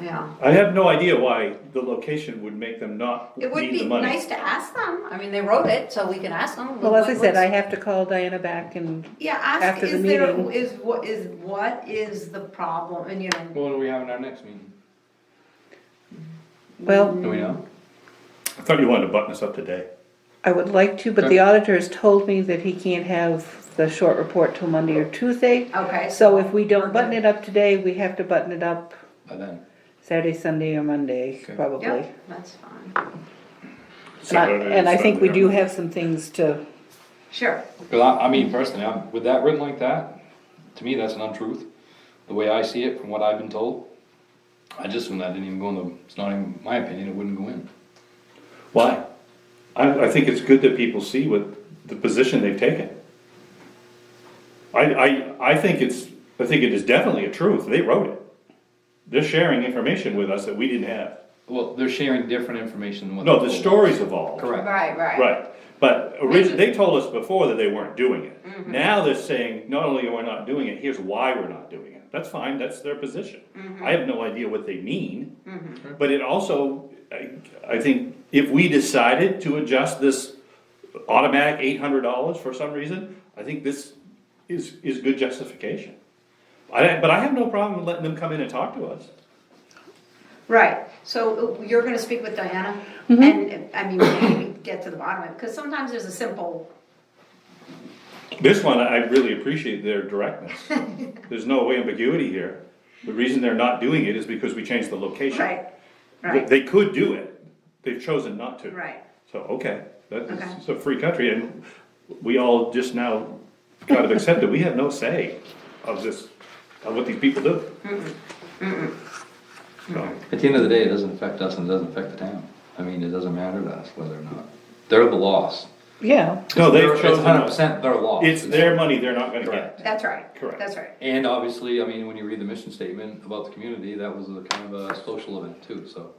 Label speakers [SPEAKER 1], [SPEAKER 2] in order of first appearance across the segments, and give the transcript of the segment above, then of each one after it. [SPEAKER 1] yeah.
[SPEAKER 2] I have no idea why the location would make them not
[SPEAKER 1] It would
[SPEAKER 2] need
[SPEAKER 1] be
[SPEAKER 2] the money.
[SPEAKER 1] nice to ask them, I mean, they wrote it, so we can ask them.
[SPEAKER 3] Well, as I
[SPEAKER 1] what-
[SPEAKER 3] said, I
[SPEAKER 1] what's-
[SPEAKER 3] have to call Diana back and,
[SPEAKER 1] Yeah, ask,
[SPEAKER 3] after the
[SPEAKER 1] is there,
[SPEAKER 3] meeting.
[SPEAKER 1] is what, is what is the problem, and you know,
[SPEAKER 4] Well, what do we have in our next meeting?
[SPEAKER 3] well,
[SPEAKER 4] Do we know?
[SPEAKER 2] I thought you wanted to button us up today.
[SPEAKER 3] I would like to, but the auditor has told me that he can't have the short report till Monday or Tuesday.
[SPEAKER 1] okay.
[SPEAKER 3] So if we don't button it up today, we have to button it up
[SPEAKER 4] By then.
[SPEAKER 3] Saturday, Sunday, or Monday,
[SPEAKER 4] Okay.
[SPEAKER 3] probably.
[SPEAKER 1] Yeah, that's fine,
[SPEAKER 3] And I- And I think we do have some things to,
[SPEAKER 1] sure,
[SPEAKER 4] Cause I, I mean, personally, I'm, with that written like that, to me, that's an untruth. The way I see it, from what I've been told, I just assume that didn't even go in the, it's not even my opinion, it wouldn't go in.
[SPEAKER 2] Why? I, I think it's good that people see what, the position they've taken. I, I, I think it's, I think it is definitely a truth, they wrote it. They're sharing information with us that we didn't have.
[SPEAKER 4] Well, they're sharing different information than what.
[SPEAKER 2] No,
[SPEAKER 4] they
[SPEAKER 2] the
[SPEAKER 4] told.
[SPEAKER 2] story's evolved.
[SPEAKER 4] Correct.
[SPEAKER 1] right, right.
[SPEAKER 2] Right, but originally, they told us before that they weren't doing it. Now they're saying, not only are we not doing it, here's why we're not doing it. That's fine, that's their position. I have no idea what they mean, but it also, I, I think, if we decided to adjust this automatic eight hundred dollars for some reason, I think this is, is good justification. I, but I have no problem with letting them come in and talk to us.
[SPEAKER 1] Right, so uh, you're gonna speak with Diana,
[SPEAKER 3] Mm-hmm.
[SPEAKER 1] and, uh, I mean, maybe get to the bottom of it, because sometimes there's a simple,
[SPEAKER 2] This one, I really appreciate their directness. There's no ambiguity here. The reason they're not doing it is because we changed the location.
[SPEAKER 1] right,
[SPEAKER 2] They-
[SPEAKER 1] right,
[SPEAKER 2] They could do it, they've chosen not to.
[SPEAKER 1] right.
[SPEAKER 2] So, okay, that's,
[SPEAKER 1] Okay.
[SPEAKER 2] it's a free country, and we all just now kind of accept that we have no say of this, of what these people do. So,
[SPEAKER 4] At the end of the day, it doesn't affect us and it doesn't affect the town. I mean, it doesn't matter to us whether or not. They're the loss.
[SPEAKER 3] yeah.
[SPEAKER 2] No, they've
[SPEAKER 4] It's hundred
[SPEAKER 2] chosen,
[SPEAKER 4] percent their loss.
[SPEAKER 2] it's their money, they're not gonna
[SPEAKER 4] Correct.
[SPEAKER 2] get.
[SPEAKER 1] That's right.
[SPEAKER 2] Correct.
[SPEAKER 1] That's right.
[SPEAKER 4] And obviously, I mean, when you read the mission statement about the community, that was a kind of a social event too, so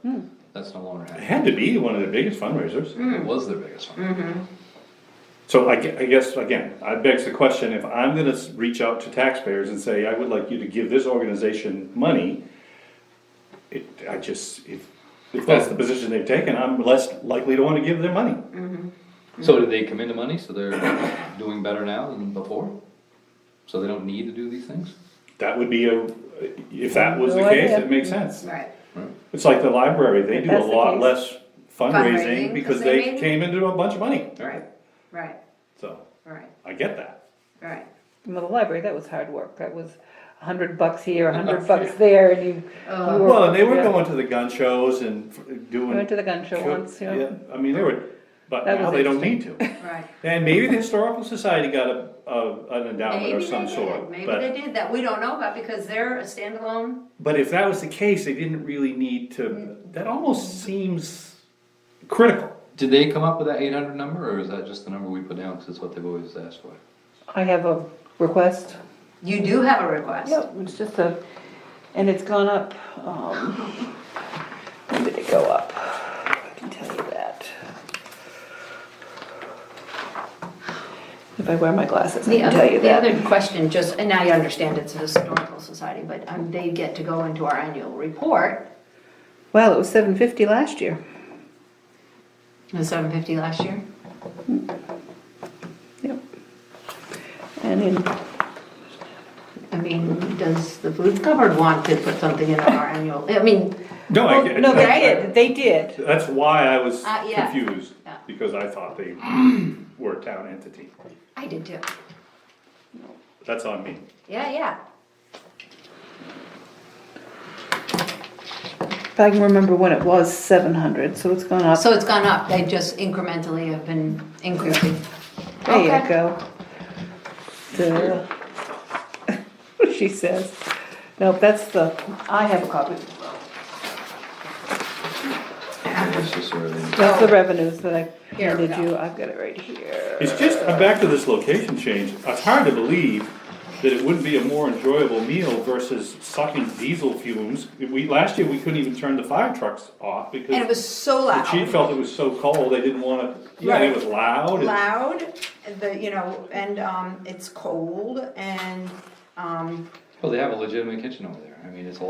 [SPEAKER 4] that's no longer
[SPEAKER 2] It
[SPEAKER 4] happening.
[SPEAKER 2] had to be one of their biggest fundraisers.
[SPEAKER 1] Mm-hmm.
[SPEAKER 4] It was their biggest one.
[SPEAKER 2] So I gue- I guess, again, I begs the question, if I'm gonna s- reach out to taxpayers and say, I would like you to give this organization money, it, I just, if, if that's the position they've taken, I'm less likely to wanna give their money.
[SPEAKER 4] So did they come into money, so they're doing better now than before? So they don't need to do these things?
[SPEAKER 2] That would be a, if that was the
[SPEAKER 3] No
[SPEAKER 2] case,
[SPEAKER 3] idea. Mm-hmm.
[SPEAKER 2] it makes sense.
[SPEAKER 1] Right.
[SPEAKER 2] It's like the library, they do a
[SPEAKER 3] That's the
[SPEAKER 2] lot
[SPEAKER 3] case.
[SPEAKER 2] less
[SPEAKER 1] Fundraising,
[SPEAKER 2] fundraising because they
[SPEAKER 1] made-
[SPEAKER 2] came into a bunch of money,
[SPEAKER 1] Right. Right.
[SPEAKER 2] so
[SPEAKER 1] Right.
[SPEAKER 2] I get that.
[SPEAKER 1] Right.
[SPEAKER 3] Well, the library, that was hard work. That was a hundred bucks here, a hundred bucks there, and you. you were-
[SPEAKER 2] Well, and they were
[SPEAKER 3] yeah.
[SPEAKER 2] going to the gun shows and f-
[SPEAKER 3] We
[SPEAKER 2] doing.
[SPEAKER 3] Went to the gun show once, you know.
[SPEAKER 2] I mean, they were, but
[SPEAKER 3] That
[SPEAKER 2] now
[SPEAKER 3] was
[SPEAKER 2] they don't need to.
[SPEAKER 1] Right.
[SPEAKER 2] And maybe the historical society got a, a, an endowment
[SPEAKER 1] Maybe
[SPEAKER 2] of
[SPEAKER 1] they
[SPEAKER 2] some
[SPEAKER 1] did.
[SPEAKER 2] sort,
[SPEAKER 1] Maybe they
[SPEAKER 2] but,
[SPEAKER 1] did that. We don't know about because they're a standalone.
[SPEAKER 2] but if that was the case, they didn't really need to,
[SPEAKER 1] Mm.
[SPEAKER 2] that almost seems critical.
[SPEAKER 4] Did they come up with that eight hundred number, or is that just the number we put down, because it's what they've always asked for?
[SPEAKER 3] I have a request.
[SPEAKER 1] You do have a request.
[SPEAKER 3] Yep, it's just a, and it's gone up, um, when did it go up? I can tell you that. If I wear my glasses, I
[SPEAKER 1] The
[SPEAKER 3] can tell
[SPEAKER 1] other,
[SPEAKER 3] you
[SPEAKER 1] the
[SPEAKER 3] that.
[SPEAKER 1] other question, just, and now you understand it's a historical society, but um, they get to go into our annual report.
[SPEAKER 3] Well, it was seven fifty last year.
[SPEAKER 1] It was seven fifty last year.
[SPEAKER 3] Yep. And in,
[SPEAKER 1] I mean, does the food cupboard want to put something in our annual, I mean,
[SPEAKER 2] No, Oh, I get.
[SPEAKER 3] no, they
[SPEAKER 2] I-
[SPEAKER 3] did, they did.
[SPEAKER 2] That's why I was
[SPEAKER 1] Uh, yeah.
[SPEAKER 2] confused,
[SPEAKER 1] Yeah.
[SPEAKER 2] because I thought they were a town entity.
[SPEAKER 1] I did too.
[SPEAKER 2] That's on me.
[SPEAKER 1] Yeah, yeah.
[SPEAKER 3] If I can remember when it was seven hundred, so it's gone up.
[SPEAKER 1] So it's gone up, they just incrementally have been increasing.
[SPEAKER 3] There
[SPEAKER 1] Okay.
[SPEAKER 3] you go. Duh. She says, no, that's the, I have a copy.
[SPEAKER 4] It's just sort of-
[SPEAKER 3] That's the revenues that I
[SPEAKER 1] Oh. Here we
[SPEAKER 3] handed you, I've got it right here.
[SPEAKER 2] It's just, I'm back to this location change, it's hard to believe that it wouldn't be a more enjoyable meal versus sucking diesel fumes. We, last year, we couldn't even turn the fire trucks off
[SPEAKER 1] And it
[SPEAKER 2] because
[SPEAKER 1] was so
[SPEAKER 2] the
[SPEAKER 1] loud.
[SPEAKER 2] chief felt it was so cold, they didn't wanna, yeah, and it was loud. and-
[SPEAKER 1] Loud, the, you know, and, um, it's cold and, um,
[SPEAKER 4] Well, they have a legitimate kitchen over there, I mean, it's a